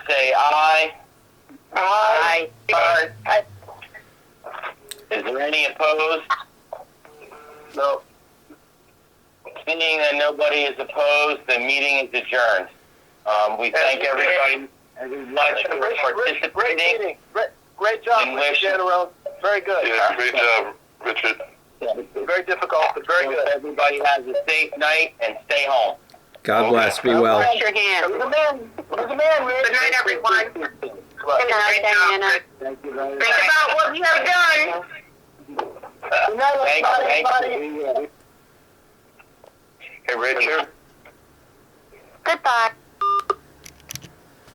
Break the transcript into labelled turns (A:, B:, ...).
A: say aye.
B: Aye.
A: Aye. Is there any opposed? No. Seeing that nobody is opposed, the meeting is adjourned. Um, we thank everybody very much for
B: Great, great
A: participating.
B: meeting. Great, great job,
A: And
B: Mr.
A: wish-
B: General. Very good.
C: Yeah, great job, Richard.
B: Very difficult, but very
A: Hope
B: good.
A: Everybody has a safe night and stay home.
D: God bless. Be well.
E: Raise your hand.
B: It was a man. It was a man. Rick.
F: Good night, everyone.
E: Good night,
F: Great job,
E: Diana.
F: Rick.
A: Thank you very
F: Think about what you have done.
B: Good night,
A: Thank you,
B: everybody.
A: thank
B: everybody.
A: you.
C: Hey, Richard.
E: Goodbye.